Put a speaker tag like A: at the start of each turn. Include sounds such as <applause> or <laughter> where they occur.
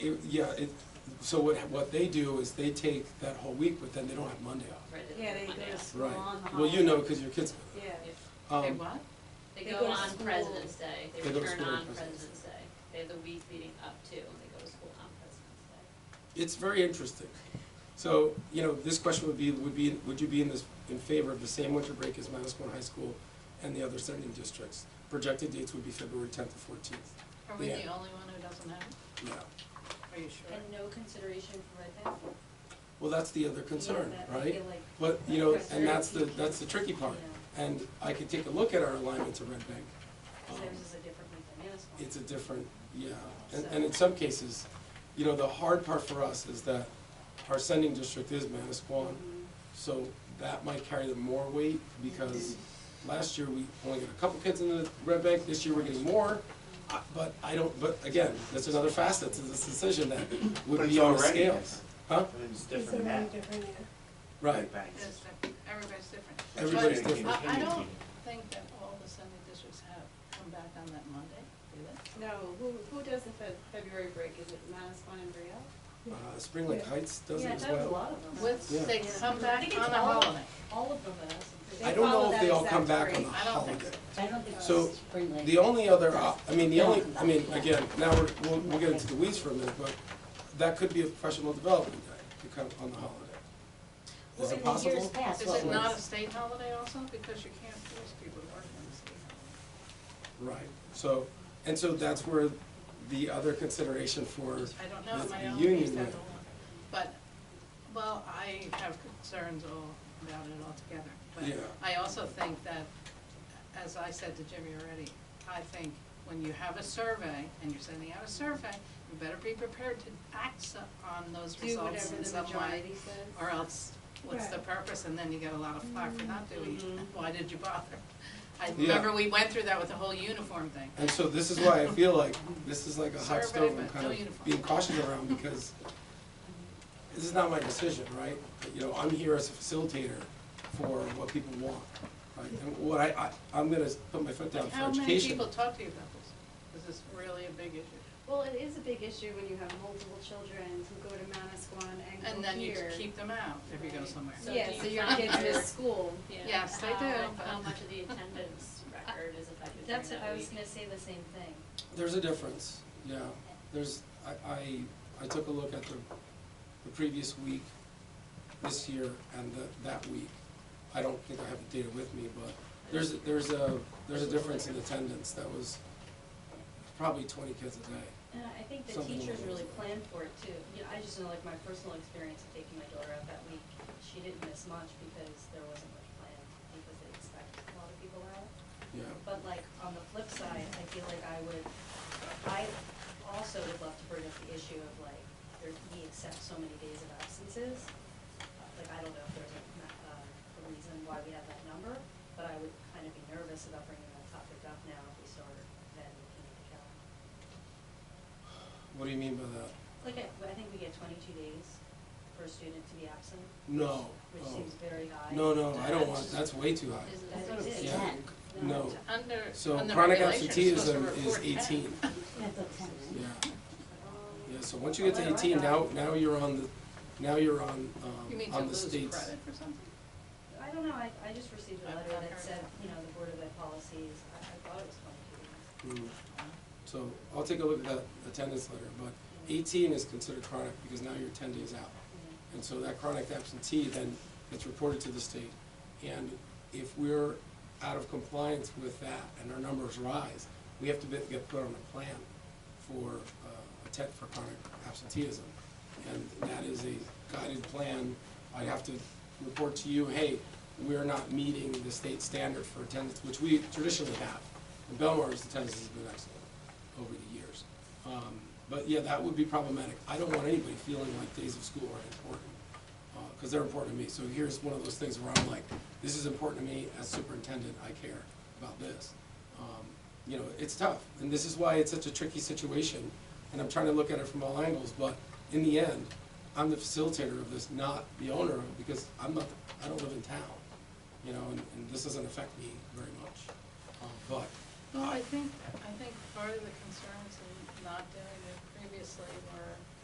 A: It, yeah, it, so what, what they do is they take that whole week, but then they don't have Monday off.
B: Right,
C: Yeah, they
B: on
C: go
B: Monday
C: to
B: off.
C: school on the
A: Well, you know,
C: holiday.
A: because your kids.
C: Yeah,
D: Say
A: um,
D: Uh-huh. what?
B: They
C: They
B: go
C: go to
B: on
C: school.
B: President's Day, they
A: They go to
B: return
A: school on
B: on
A: President's
B: President's Day. They have the week leading up to, and they go to school on President's Day.
A: It's very interesting. So, you know, this question would be, would be, would you be in this, in favor of the same winter break as Manasquan High School and the other sending districts? Projected dates would be February tenth to fourteenth.
D: Are we the
A: Yeah.
D: only one who doesn't have it?
A: Yeah.
D: Are you sure?
C: and no consideration for my family.
A: Well, that's the other concern,
C: Yeah, that- I
A: right?
C: feel like-
A: But, you know,
C: That's
A: and
C: very
A: that's the,
C: tricky.
A: that's the tricky part.
C: Yeah.
A: And I could take a look at our alignment to Red Bank. um,
C: Theirs is a different week than ours.
A: it's a different, yeah, and, and in some cases, you know, the hard part for us is that our sending district is Manasquan, so that might carry the more weight, because last year we only got a couple kids in the Red Bank, this year we're getting more, I- but I don't, but again, that's another facet to this decision that
E: But
A: would
E: it's
A: be on the
E: already
A: scales. Huh?
E: It's different now.
A: Right,
E: Banks.
D: Everybody's different.
A: Everybody's
D: But
A: different.
D: I, I don't think that all the Sunday districts have come back on that Monday, do they?
C: No, who, who does the Fe- February break? Is it Manasquan and Brielle?
A: uh, Spring Lake Heights does it as
C: Yeah, I thought a
A: well.
C: lot of them.
A: Yeah.
D: With, they come back
C: I think it's
D: on a
C: all of
D: holiday.
C: All of them have.
A: I don't know if they all come back on the
D: I don't think
A: holiday.
D: so.
F: I don't think
A: So,
F: it's spring lake.
A: The only other, op- I mean, the only, I mean, again, now we're, we'll, we'll get into the weeds for a minute, but that could be a professional development day to come on the holiday.
F: Well,
A: Is it
F: in the years
A: possible?
F: past,
D: Is
F: what
D: it
F: was-
D: not a state holiday also? Because you can't force people to work on a state holiday.
A: Right, so, and so that's where the other consideration for
D: I don't know,
A: the
D: my own
A: union
D: case, I
A: rate.
D: don't want, but, well, I have concerns all about it altogether.
A: Yeah.
D: But I also think that, as I said to Jimmy already, I think when you have a survey and you're sending out a survey, you better be prepared to act so- on those
C: Do
D: results
C: whatever
D: in
C: the
D: some way.
C: majority says.
D: Or else, what's the purpose? And then you get a lot of flack for not doing it.
C: Mhm.
D: <laughs> Why did you bother? I
A: Yeah.
D: remember we went through that with the whole uniform thing.
A: And so this is why I feel like, this is like a hot
D: Survey,
A: stove I'm
D: but no
A: kind of
D: uniform.
A: being cautious around, because this is not my decision, right? You know, I'm here as a facilitator for what people want, right? And what I, I, I'm gonna put my foot down for
D: How
A: education.
D: many people talk to you about this? Is this really a big issue?
C: Well, it is a big issue when you have multiple children who go to Manasquan and go here.
D: And then you just keep them out if you go somewhere.
B: So
C: Yeah,
B: do
C: so
B: you
C: your
B: count
C: kids
B: your-
C: miss school.
B: Yeah.
D: Yes, they
B: How-
D: do, but-
B: How much of the attendance record is affected during
G: That's,
B: that
G: what I was
B: week?
G: gonna say the same thing.
A: There's a difference, yeah. There's, I, I, I took a look at the, the previous week, this year, and the, that week. I don't think I have the data with me, but there's, there's a, there's a difference in attendance that was probably twenty kids a day.
G: And I think the
A: Something
G: teachers
A: along
G: really
A: those
G: planned for it too. You know, I just know like my personal experience of taking my daughter out that week, she didn't miss much because there wasn't much planned, because they expect a lot of people out.
A: Yeah,
G: But like, on the flip side, I feel like I would, I also would love to bring up the issue of like, there, we accept so many days of absences. Like, I don't know if there's a, ma- uh, a reason why we have that number, but I would kind of be nervous about bringing that topic up now if we start then looking at the calendar.
A: what do you mean by that?
G: Like, I, I think we get twenty-two days for a student to be absent,
A: No,
G: which
A: oh,
G: seems very high.
A: no, no, I don't want, that's way too high.
F: I
G: I think
F: thought it was
G: it is.
A: Yeah,
F: ten.
A: no.
D: Under,
A: So
D: under
A: chronic
D: regulations, you're supposed
A: absenteeism
D: to
A: is
D: report that.
A: eighteen,
F: I thought ten.
A: yeah. Yeah, so once you get to
G: Well, I
A: eighteen, now,
G: got-
A: now you're on the, now you're on,
D: <laughs> You
A: um,
D: mean to
A: on the
D: lose
A: state's.
D: credit for something?
G: I don't know, I, I just received a
D: I've
G: letter
D: not
G: that
D: heard
G: said,
D: that.
G: you know, the Board of Ed policies, I, I thought it was twenty-two days.
A: Mm. So I'll take a look at that attendance letter, but eighteen is considered chronic because now you're ten days out. And so that chronic absentee then gets reported to the state. And if we're out of compliance with that and our numbers rise, we have to be- get put on a plan for uh, a tent for chronic absenteeism. And that is a guided plan. I'd have to report to you, hey, we're not meeting the state standard for attendance, which we traditionally have. And Belmar's attendance has been excellent over the years. Um, But yeah, that would be problematic. I don't want anybody feeling like days of school aren't important, because they're important to me. So here's one of those things where I'm like, this is important to me as superintendent, I care about this. Um, You know, it's tough, and this is why it's such a tricky situation, and I'm trying to look at it from all angles, but in the end, I'm the facilitator of this, not the owner of it, because I'm not, I don't live in town, you know, and, and this doesn't affect me very much. Um, But,
D: Well, I think, I think part of the concerns in not doing it previously were